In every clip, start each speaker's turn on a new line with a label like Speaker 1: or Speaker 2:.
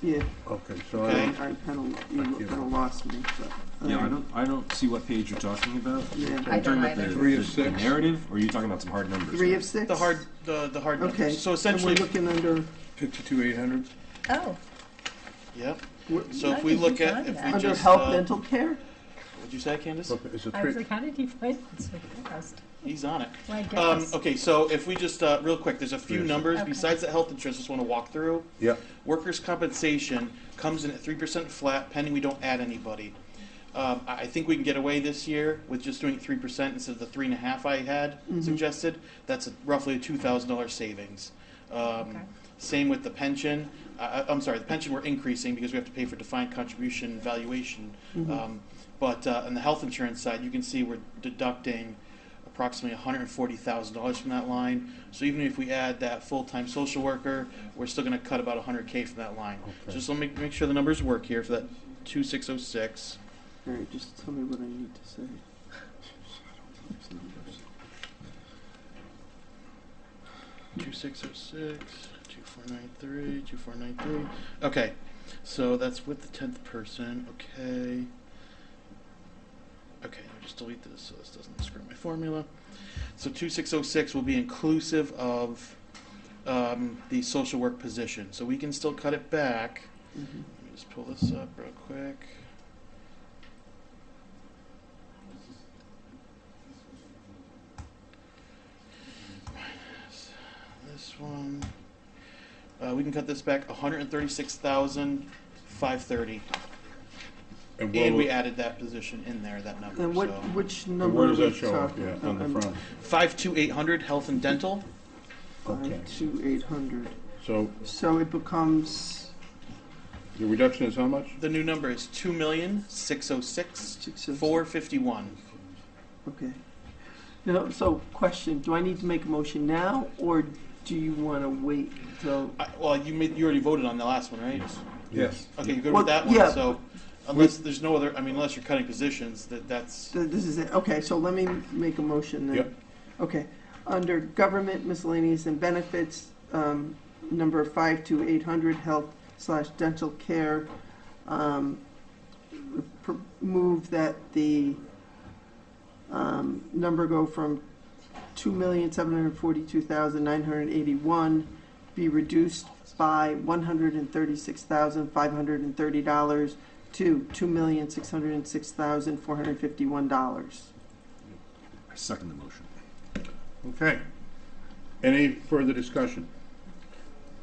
Speaker 1: Yeah,
Speaker 2: Okay, so
Speaker 1: I,
Speaker 2: I,
Speaker 1: I kind of, you
Speaker 2: Thank you.
Speaker 1: kind of lost me, but.
Speaker 3: Yeah, I
Speaker 1: um,
Speaker 3: don't, I don't see what page you're talking about.
Speaker 1: Yeah.
Speaker 3: Are you
Speaker 1: I
Speaker 4: don't
Speaker 3: talking about
Speaker 4: either.
Speaker 3: the-
Speaker 2: Three of
Speaker 3: the- The
Speaker 2: six.
Speaker 3: narrative, or are you talking about some hard numbers?
Speaker 1: Three of six?
Speaker 5: The hard, the, the hard numbers.
Speaker 1: Okay.
Speaker 5: So essentially,
Speaker 1: And we're looking under,
Speaker 2: fifty-two eight hundred?
Speaker 4: Oh,
Speaker 5: yep.
Speaker 1: we're-
Speaker 5: So
Speaker 4: I
Speaker 5: if we
Speaker 4: think
Speaker 5: look
Speaker 4: we
Speaker 5: at,
Speaker 4: found
Speaker 5: if
Speaker 4: that.
Speaker 5: we
Speaker 1: under
Speaker 5: just,
Speaker 1: health,
Speaker 5: uh,
Speaker 1: dental care?
Speaker 5: what'd you say, Candace?
Speaker 2: It's a
Speaker 4: I was
Speaker 2: three,
Speaker 4: like, how did he find it so fast?
Speaker 5: He's on it.
Speaker 4: My
Speaker 5: Um,
Speaker 4: goodness.
Speaker 5: okay, so if we just, uh, real quick, there's a few
Speaker 2: Yes.
Speaker 5: numbers
Speaker 4: Okay.
Speaker 5: besides the health insurance, I just wanna walk through.
Speaker 2: yeah,
Speaker 5: Workers' compensation comes in at three percent flat pending we don't add anybody. Um, I, I think we can get away this year with just doing three percent instead of the three and a half I had
Speaker 4: Mm-hmm.
Speaker 5: suggested. That's a- roughly a two thousand dollar savings.
Speaker 4: Okay.
Speaker 5: Um, same with the pension, uh, I'm sorry, the pension we're increasing because we have to pay for defined contribution valuation. Um, But uh, on the health insurance side, you can see we're deducting approximately hundred and forty thousand dollars from that line. So even if we add that full-time social worker, we're still gonna cut about hundred K from that line. So just let me make sure the numbers work here for that two six oh six.
Speaker 1: All right, just tell me what I need to say.
Speaker 5: Two six oh six, two four nine three, two four nine three. Okay, so that's with the tenth person. Okay. Okay, I'll just delete this so this doesn't screw my formula. So two six oh six will be inclusive of um, the social work position. So we can still cut it back.
Speaker 1: Mhm.
Speaker 5: Let me just pull this up real quick. Minus This one, uh, we can cut this back hundred and thirty-six thousand, five thirty,
Speaker 2: and
Speaker 5: and we
Speaker 2: where,
Speaker 5: added that position in there, that number,
Speaker 1: And what,
Speaker 5: so.
Speaker 1: which
Speaker 2: and
Speaker 1: number
Speaker 2: where
Speaker 1: are
Speaker 2: does
Speaker 1: we
Speaker 2: that show up,
Speaker 1: talking?
Speaker 2: yeah, on the
Speaker 1: Um,
Speaker 2: front?
Speaker 5: Five two eight hundred, health and dental,
Speaker 2: Okay,
Speaker 1: Five, two, eight hundred.
Speaker 2: so
Speaker 1: So it becomes
Speaker 2: the reduction is how much?
Speaker 5: the new number is two million, six oh six,
Speaker 1: six oh,
Speaker 5: four fifty-one.
Speaker 1: okay. No, so question, do I need to make a motion now, or do you want to wait till?
Speaker 5: I, well, you made, you already voted on the last one, right?
Speaker 2: Yes.
Speaker 5: Okay, you're good
Speaker 1: Well,
Speaker 5: with that one,
Speaker 1: yeah.
Speaker 5: so unless there's no other, I mean, unless you're cutting positions, that, that's,
Speaker 1: So This is it, okay, so let me make a motion then.
Speaker 2: Yep.
Speaker 1: Okay, under government miscellaneous and benefits, um, number five to eight hundred, health slash dental care, um, pr- move that the, um, number go from two million, seven hundred forty-two thousand, nine hundred eighty-one, be reduced by one hundred and thirty-six thousand, five hundred and thirty dollars to two million six hundred and six thousand four hundred and fifty one dollars.
Speaker 3: I second the motion.
Speaker 2: Okay. Any further discussion?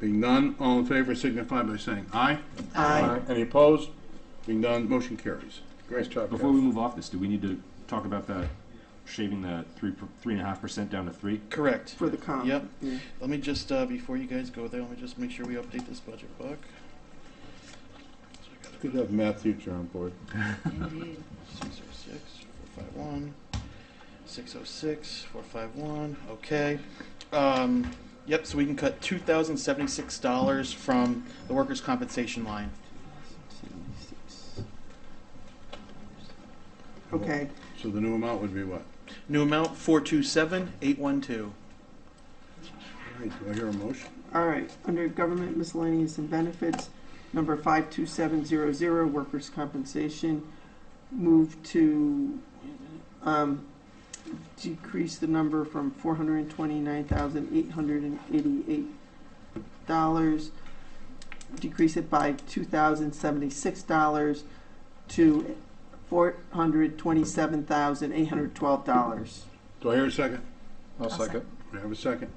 Speaker 2: Being none, all in favor signify by saying aye.
Speaker 1: Aye.
Speaker 2: Any opposed? Being none, motion carries. Great job,
Speaker 3: Before we
Speaker 2: guys.
Speaker 3: move off this, do we need to talk about that, shaving the three, per- three and a half percent down to three?
Speaker 5: correct.
Speaker 1: For the comp.
Speaker 5: Yep.
Speaker 1: Yeah.
Speaker 5: Let me just, uh, before you guys go there, let me just make sure we update this budget book. So I gotta
Speaker 2: Good to have math teacher on board.
Speaker 4: Indeed.
Speaker 5: 606, 451, 606, 451, okay. Um, Yep, so we can cut $2,076 from the workers' compensation line.
Speaker 1: Okay,
Speaker 2: So the new amount would be what?
Speaker 5: New amount, 427,812.
Speaker 2: All right, do I hear a motion?
Speaker 1: all right, under government miscellaneous and benefits, number five two seven zero zero, workers' compensation, move to, um, decrease the number from four hundred and twenty-nine thousand eight hundred and eighty-eight dollars, decrease it by two thousand seventy-six dollars to four hundred twenty-seven thousand eight hundred twelve dollars.
Speaker 2: Do I hear a second?
Speaker 4: I'll second.
Speaker 2: We have a second.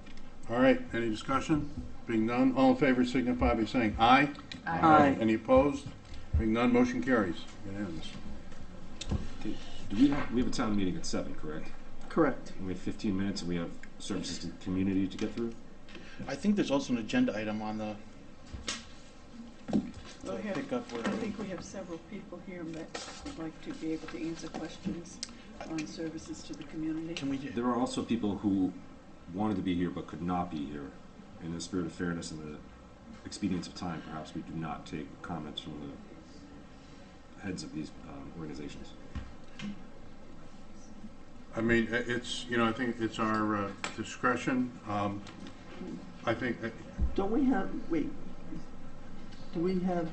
Speaker 2: All right, any discussion? Being none, all in favor signify by saying aye.
Speaker 1: Aye.
Speaker 2: Any opposed? Being none, motion carries. Unanimous.
Speaker 3: Do we have, we have a town meeting at seven, correct?
Speaker 1: Correct.
Speaker 3: And we have fifteen minutes and we have services to the community to get through?
Speaker 5: I think there's also an agenda item on the, to pick up where.
Speaker 6: I think we have several people here that would like to be able to answer questions on services to the community.
Speaker 5: Can we, do-
Speaker 3: There are also people who wanted to be here but could not be here. In the spirit of fairness and the expedience of time, perhaps we do not take comments from the heads of these um, organizations.
Speaker 2: I mean, i- it's, you know, I think it's our uh, discretion. Um, I think, uh,
Speaker 1: Don't we have, wait, Do we have